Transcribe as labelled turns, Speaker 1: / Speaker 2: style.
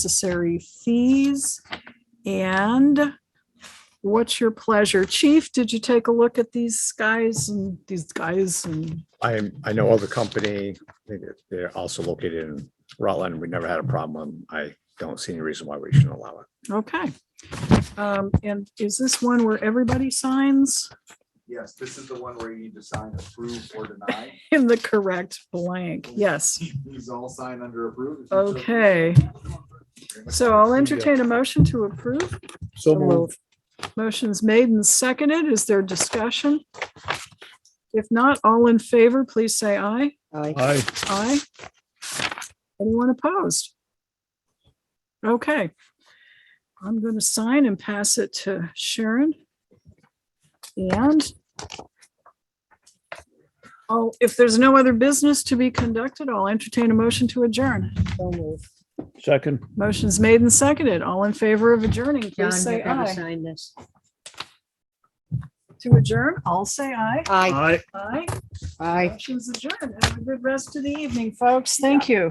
Speaker 1: necessary fees. And what's your pleasure? Chief, did you take a look at these guys and these guys and
Speaker 2: I, I know of the company, I think that they're also located in Rutland. We never had a problem. I don't see any reason why we shouldn't allow it.
Speaker 1: Okay. Um, and is this one where everybody signs
Speaker 3: Yes, this is the one where you need to sign approve or deny.
Speaker 1: in the correct blank? Yes.
Speaker 3: These all sign under approve. if you so-
Speaker 1: Okay. So I'll entertain a motion to approve.
Speaker 4: So
Speaker 1: Motion's made and seconded. Is there discussion? If not, all in favor, please say aye.
Speaker 4: Aye.
Speaker 1: Aye. Anyone opposed? Okay. I'm going to sign and pass it to Sharon. And oh, if there's no other business to be conducted, I'll entertain a motion to adjourn.
Speaker 4: Second.
Speaker 1: Motion's made and seconded. All in favor of adjourning,
Speaker 5: John,
Speaker 1: please
Speaker 5: you
Speaker 1: say
Speaker 5: gotta
Speaker 1: aye.
Speaker 5: sign this.
Speaker 1: To adjourn, I'll say aye.
Speaker 5: Aye.
Speaker 4: Aye.
Speaker 1: Aye.
Speaker 5: Aye.
Speaker 1: Motion's adjourned. Have a good rest of the evening, folks. Thank you.